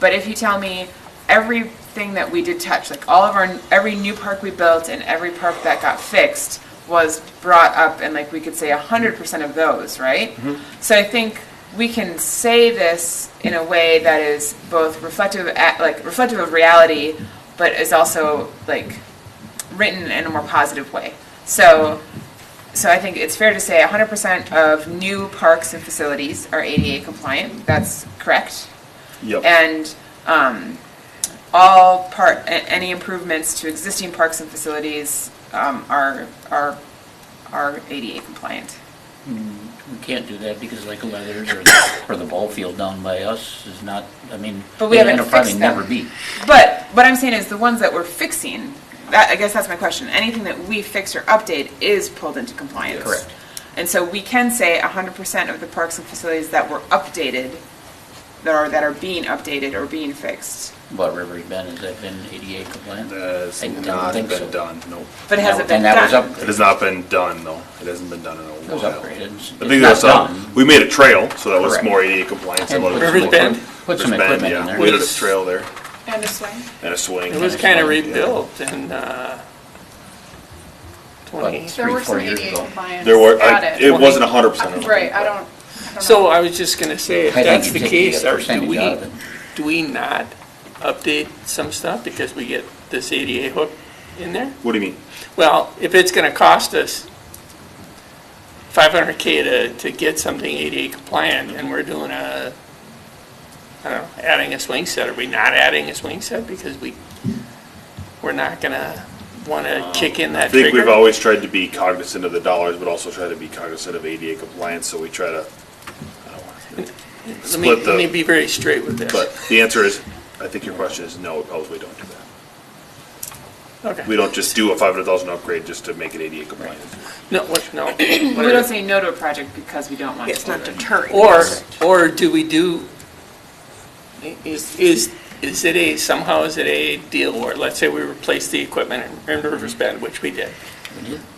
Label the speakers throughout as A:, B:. A: But if you tell me everything that we did touch, like all of our, every new park we built and every park that got fixed was brought up and like we could say hundred percent of those, right? So I think we can say this in a way that is both reflective, at, like reflective of reality, but is also like written in a more positive way. So, so I think it's fair to say 100% of new parks and facilities are ADA compliant. That's correct.
B: Yep.
A: And um, all part, a- any improvements to existing parks and facilities um, are are are ADA compliant.
C: We can't do that because like Leathers or, or the ball field down by us is not, I mean.
A: But we
C: it'll
A: haven't
C: probably
A: fixed them.
C: never be.
A: But what I'm saying is the ones that we're fixing. That, I guess that's my question. Anything that we fix or update is pulled into compliance.
C: Correct.
A: And so we can say 100% of the parks and facilities that were updated, that are, that are being updated or being fixed.
C: What Rivery Bend, has that been ADA compliant?
B: That's
C: I don't
B: not
C: think
B: been
C: so.
B: done, no.
A: But it hasn't been
C: And that was
A: done.
B: It
C: upgraded.
B: has not been done, no. It hasn't been done in a
C: It was
B: while.
C: upgraded. It's-
B: I think
C: it's
B: that's,
C: not
B: um,
C: done.
B: we made a trail, so that was
C: Correct.
B: more ADA compliant. than
C: And
B: what it
C: put
B: was
C: some-
D: Riversbend.
B: before.
C: Put some
B: Riversbend,
C: equipment in
B: yeah.
C: there.
B: We did a
D: Which-
B: trail there
A: And this way?
B: and a swing.
D: It was kind of rebuilt in uh, 20.
C: But-
E: There
C: three,
E: were
C: four
E: some
C: years
E: ADA
C: ago.
E: compliance
B: There were, I-
E: at
B: it
E: it.
B: wasn't hundred percent.
E: Right, I don't, I don't
D: So
E: know.
D: I was just going to say, if
C: I think
D: that's
C: you
D: the
C: take
D: case,
C: a
D: are, do
C: percentage
D: we,
C: out of it.
D: do we not update some stuff because we get this ADA hook in there?
B: What do you mean?
D: Well, if it's going to cost us 500K to, to get something ADA compliant and we're doing a, I don't know, adding a swing set, are we not adding a swing set because we, we're not going to want to kick in
B: I
D: that trigger?
B: think we've always tried to be cognizant of the dollars, but also try to be cognizant of ADA compliance, so we try to, I don't wanna-
D: Let me,
B: split the-
D: let me be very straight with this.
B: But the answer is, I think your question is no, we probably don't do that. We
D: Okay.
B: don't just do a five hundred thousand upgrade just to make it ADA compliant.
D: No, what, no.
A: We don't say no to a project because we don't want to.
F: It's not deterring.
D: Or, or do we do, i- is, is, is it a, somehow is it a deal where, let's say we replace the equipment in in River's Bend, which we did.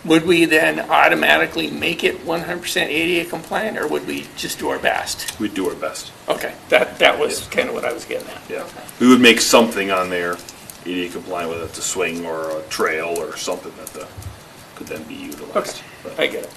D: Would we then automatically make it 100% ADA compliant, or would we just do our best?
B: We do our best,
D: Okay, that, that was kind of what I was getting at.
B: yeah. We would make something on there ADA compliant, whether it's a swing or a trail or something that the, could then be utilized.
D: Okay, I get it.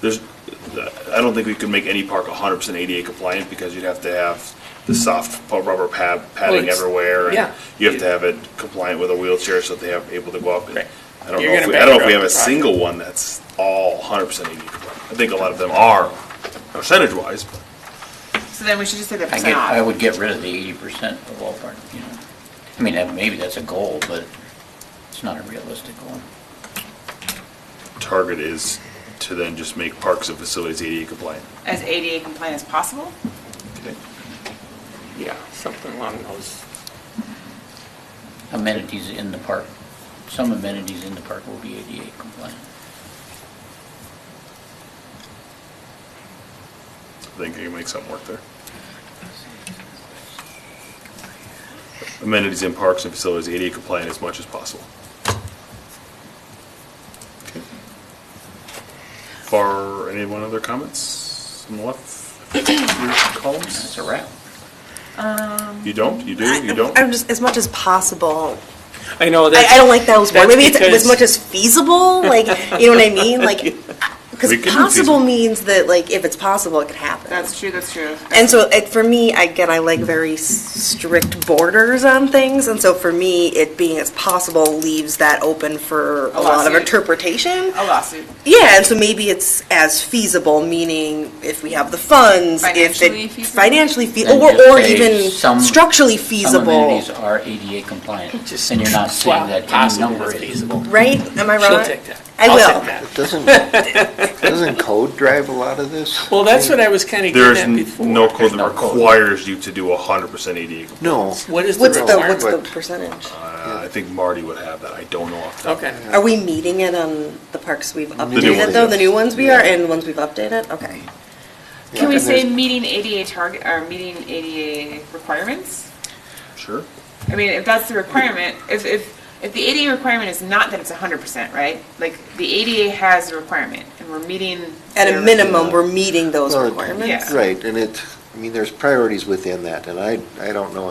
B: There's, uh, I don't think we could make any park hundred percent ADA compliant because you'd have to have the soft pu- rubber pad, padding
D: it's-
B: everywhere. and
D: yeah.
B: You have to have it compliant with a wheelchair so they have, able to go up. and-
D: Right.
B: I don't know
D: You're
B: if,
D: gonna
B: we- I don't know if we
D: bankrupt
B: have a
D: the project.
B: single one that's all hundred percent ADA compliant. I think a lot of them are percentage wise, but
A: So then we should just say the
C: I
A: percent
C: get, I
A: off.
C: would get rid of the eighty percent of all park, you know. I mean, that- maybe that's a goal, but it's not a realistic goal.
B: target is to then just make parks and facilities ADA compliant.
A: As ADA compliant as possible?
D: Yeah, something along those.
C: Amenities in the park, some amenities in the park will be ADA compliant.
B: I think you can make something work there. Amenities in parks and facilities ADA compliant as much as possible. Okay. For anyone other comments on the left of your columns?
C: That's a wrap.
B: You don't, you do, you don't?
F: I'm just, as much as possible.
D: I know
F: I,
D: that.
F: I don't like those words.
D: that's
F: Maybe it's
D: because-
F: as much as feasible, like, you know what I mean? Like, because
B: We can do feasible.
F: possible means that, like, if it's possible, it could happen.
A: That's true, that's true.
F: And so, it, for me, again, I like very s- strict borders on things, and so for me, it being as possible leaves that open for a, lot of
A: lawsuit.
F: interpretation.
A: A lawsuit.
F: Yeah, and so maybe it's as feasible, meaning if we have the funds, if
A: Financially
F: it
A: feasible?
F: financially feasible,
C: Then
F: or,
C: just
F: or
C: say
F: even
C: some-
F: structurally
C: Some
F: feasible,
C: amenities are ADA compliant,
D: Just
C: and you're not saying
D: swap
C: that any
D: possible
C: number
D: with
C: is.
D: feasible.
F: right? Am I
D: She'll
F: wrong?
D: take that.
F: I
D: I'll
F: will.
D: take that.
G: Doesn't, doesn't code drive a lot of this?
D: Well, that's what I was kind of
B: There's
D: getting at
B: n-
D: before.
B: no code that
C: no code.
B: requires you to do hundred percent ADA. compliant.
G: No.
D: What is the
F: What's the
D: requirement?
F: what's the
G: But-
F: percentage?
B: Uh, I think Marty would have that, I don't know off the top.
D: Okay.
F: Are we meeting it on the parks we've
B: new
F: updated
B: ones,
F: though?
B: yes.
F: The new ones we are and the ones we've updated? Okay.
A: Can we
G: And
A: say
G: there's-
A: meeting ADA target, or meeting ADA requirements?
B: Sure.
A: I mean, if that's the requirement, if, if, if the ADA requirement is not that it's hundred percent, right? Like, the ADA has a requirement, and we're meeting.
F: At
A: their-
F: a minimum, we're meeting those
G: Well,
F: requirements?
A: Yeah.
G: Right, and it, I mean, there's priorities within that, and I, I don't know